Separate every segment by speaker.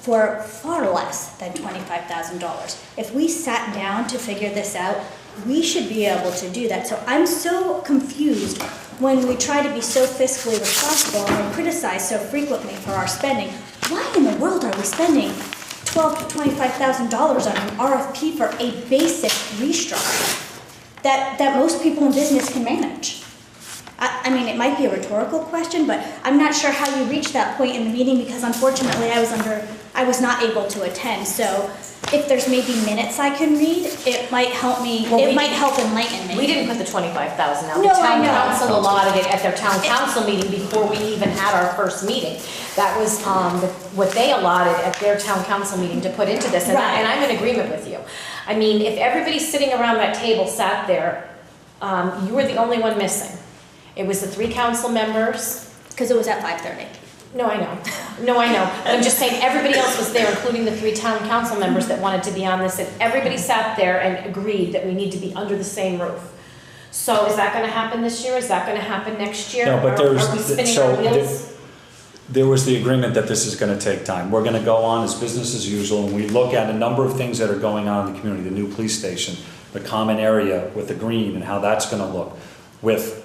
Speaker 1: for far less than twenty-five thousand dollars. If we sat down to figure this out, we should be able to do that. So I'm so confused when we try to be so fiscally responsible and we're criticized so frequently for our spending. Why in the world are we spending twelve to twenty-five thousand dollars on an RFP for a basic restructure that, that most people in business can manage? I, I mean, it might be a rhetorical question, but I'm not sure how you reached that point in the meeting because unfortunately I was under, I was not able to attend. So if there's maybe minutes I can read, it might help me,
Speaker 2: Well,
Speaker 1: it
Speaker 2: we-
Speaker 1: might help enlighten me.
Speaker 2: We didn't put the twenty-five thousand out.
Speaker 1: No,
Speaker 2: The
Speaker 1: I
Speaker 2: town
Speaker 1: know.
Speaker 2: council allotted it at their town council meeting before we even had our first meeting. That was, um, the- what they allotted at their town council meeting to put into this, and I,
Speaker 1: Right.
Speaker 2: and I'm in agreement with you. I mean, if everybody sitting around that table sat there, um, you were the only one missing. It was the three council members,
Speaker 1: Because it was at five thirty.
Speaker 2: no, I know. No, I know. But I'm just saying, everybody else was there, including the three town council members that wanted to be on this, and everybody sat there and agreed that we need to be under the same roof. So is that gonna happen this year? Is that gonna happen next year?
Speaker 3: No, but
Speaker 2: Are-
Speaker 3: there's-
Speaker 2: Are we spinning
Speaker 3: so
Speaker 2: our
Speaker 3: there-
Speaker 2: wheels?
Speaker 3: there was the agreement that this is gonna take time. We're gonna go on as business as usual, and we look at a number of things that are going on in the community, the new police station, the common area with the green and how that's gonna look, with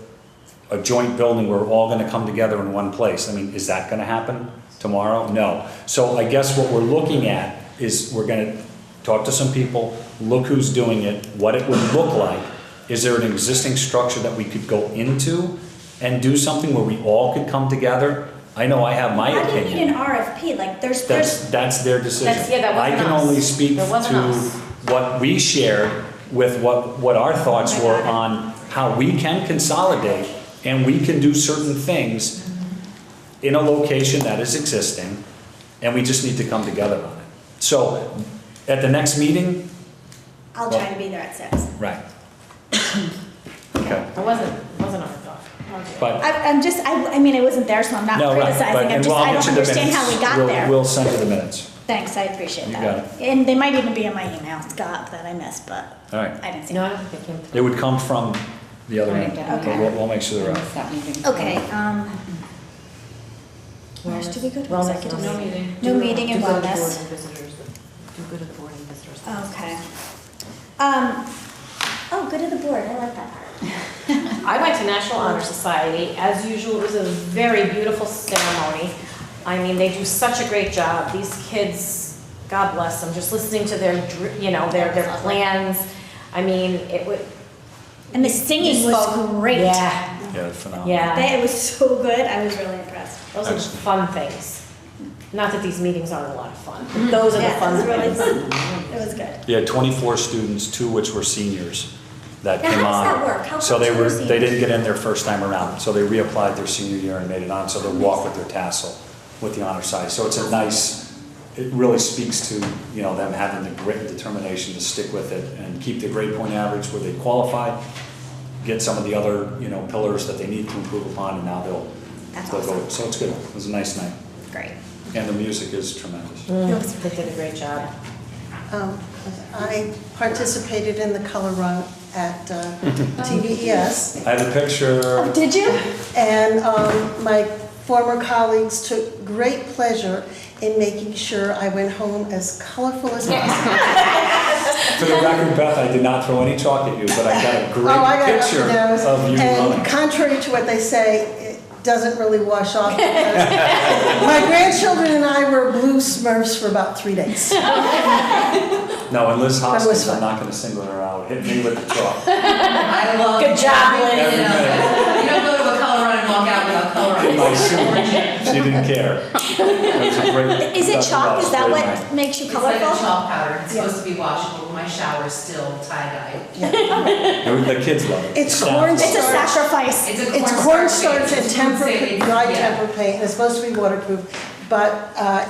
Speaker 3: a joint building where we're all gonna come together in one place. I mean, is that gonna happen tomorrow? No. So I guess what we're looking at is we're gonna talk to some people, look who's doing it, what it would look like. Is there an existing structure that we could go into and do something where we all could come together? I know I have my
Speaker 1: How do you need an
Speaker 3: opinion.
Speaker 1: RFP? Like, there's, there's,
Speaker 3: That's, that's their decision.
Speaker 2: That's- yeah, that wasn't
Speaker 3: I can
Speaker 2: us.
Speaker 3: only speak
Speaker 2: That wasn't
Speaker 3: to
Speaker 2: us.
Speaker 3: what we shared with what, what our thoughts
Speaker 1: I
Speaker 3: were
Speaker 1: got it.
Speaker 3: on how we can consolidate and we can do certain things in a location that is existing, and we just need to come together on it. So, at the next meeting,
Speaker 1: I'll try to be there at six.
Speaker 3: right. Okay,
Speaker 2: It wasn't, it wasn't our thought.
Speaker 3: but,
Speaker 1: I, I'm just, I, I mean, I wasn't there, so I'm not
Speaker 3: no, right, but,
Speaker 1: criticizing. I'm
Speaker 3: and
Speaker 1: just,
Speaker 3: we'll
Speaker 1: I
Speaker 3: I'll get
Speaker 1: don't
Speaker 3: you the minutes.
Speaker 1: understand how we got
Speaker 3: We'll-
Speaker 1: there.
Speaker 3: We'll send you the minutes,
Speaker 1: Thanks, I appreciate
Speaker 3: You
Speaker 1: that. And they might even be in my email, Scott, that I missed, but
Speaker 3: all right.
Speaker 1: I didn't see
Speaker 2: No, I
Speaker 1: it.
Speaker 2: don't think you.
Speaker 3: It would come from the other end,
Speaker 4: Right,
Speaker 3: but we'll, we'll make sure they're out.
Speaker 1: Okay, um, where else do we go to
Speaker 2: Wellness,
Speaker 1: executive?
Speaker 2: no
Speaker 4: meeting.
Speaker 1: No meeting and wellness.
Speaker 4: Do good at the board and visitors.
Speaker 2: Uh,
Speaker 1: Okay. Um, oh, good to the board, I like that part.
Speaker 2: I went to National Honor Society. As usual, it was a very beautiful ceremony. I mean, they do such a great job. These kids, God bless them, just listening to their, dr- you know, their, their plans. I mean, it would.
Speaker 1: And the singing
Speaker 2: You
Speaker 1: was
Speaker 2: spoke-
Speaker 1: great.
Speaker 2: Yeah,
Speaker 3: Yeah, phenomenal.
Speaker 2: yeah.
Speaker 1: That, it was so good, I was really impressed.
Speaker 2: Those are
Speaker 3: Excellent.
Speaker 2: fun things. Not that these meetings aren't a lot of fun, but those are the
Speaker 1: Mm-hmm. Yeah, it
Speaker 2: fun
Speaker 1: was really
Speaker 2: things.
Speaker 1: fun. It was good.
Speaker 3: Yeah, 24 students, two which were seniors that
Speaker 1: Now,
Speaker 3: came
Speaker 1: how
Speaker 3: on.
Speaker 1: does that work? How
Speaker 3: So
Speaker 1: come
Speaker 3: they
Speaker 1: two
Speaker 3: were,
Speaker 1: are
Speaker 3: they didn't
Speaker 1: seniors?
Speaker 3: get in their first time around, so they reapplied their senior year and made it on, so they walk with their tassel with the honor side. So it's a nice, it really speaks to, you know, them having the grit and determination to stick with it and keep the grade point average where they qualified, get some of the other, you know, pillars that they need to improve upon, and now they'll,
Speaker 1: That's
Speaker 3: they'll go.
Speaker 1: awesome.
Speaker 3: So it's good. It was a nice night.
Speaker 1: Great.
Speaker 3: And the music is tremendous.
Speaker 2: Mm, They did a great job.
Speaker 5: Um, I participated in the color run at uh, TVES,
Speaker 3: I have a picture.
Speaker 1: Oh, did you?
Speaker 5: and um, my former colleagues took great pleasure in making sure I went home as colorful as possible.
Speaker 3: For the record, Beth, I did not throw any chalk at you, but I got a
Speaker 5: Oh, I
Speaker 3: great
Speaker 5: got up
Speaker 3: picture
Speaker 5: to those.
Speaker 3: of you running.
Speaker 5: And contrary to what they say, it doesn't really wash off. because My grandchildren and I were blue Smurfs for about three days.
Speaker 3: No, and Liz
Speaker 5: was
Speaker 3: Hoskins, I'm
Speaker 5: fun.
Speaker 3: not gonna single her out, hit me with the chalk.
Speaker 4: I love.
Speaker 2: Good job, Lynn.
Speaker 4: You know, You don't go to a color run and walk out without color
Speaker 3: In
Speaker 4: run.
Speaker 3: my suit, she didn't care. That's a great-
Speaker 1: Is it
Speaker 3: that's
Speaker 1: chalk? Is that
Speaker 3: great
Speaker 1: what
Speaker 3: night.
Speaker 1: makes you
Speaker 4: It's like a
Speaker 1: colorful?
Speaker 4: chalk powder, it's supposed to be washable, my shower's still tie-dye.
Speaker 3: And The kids love it.
Speaker 5: It's
Speaker 3: Staff
Speaker 5: corn
Speaker 3: love it.
Speaker 1: It's a
Speaker 5: starch.
Speaker 1: sacrifice.
Speaker 4: It's a
Speaker 5: It's
Speaker 4: paint.
Speaker 5: cornstarch and
Speaker 4: It's food
Speaker 5: temper,
Speaker 4: saving.
Speaker 5: dry
Speaker 4: Yeah.
Speaker 5: temper paint, and it's supposed to be waterproof, but, uh,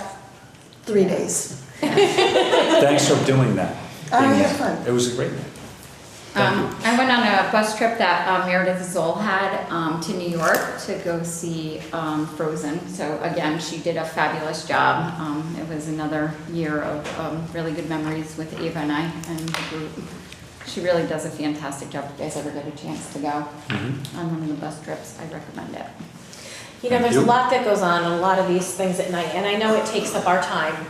Speaker 5: three days.
Speaker 3: Thanks for doing that.
Speaker 5: I
Speaker 3: Being
Speaker 5: had
Speaker 3: there.
Speaker 5: fun.
Speaker 3: It was a great night.
Speaker 6: Um, I went on a bus trip that um, Meredith Zoll had um, to New York to go see um, Frozen. So again, she did a fabulous job. Um, It was another year of um, really good memories with Ava and I and the group. She really does a fantastic job. If you guys ever get a chance to go on one of the bus trips, I recommend it.
Speaker 2: You know,
Speaker 3: Thank
Speaker 2: there's a
Speaker 3: you.
Speaker 2: lot that goes on, in a lot of these things at night, and I know it takes up our time,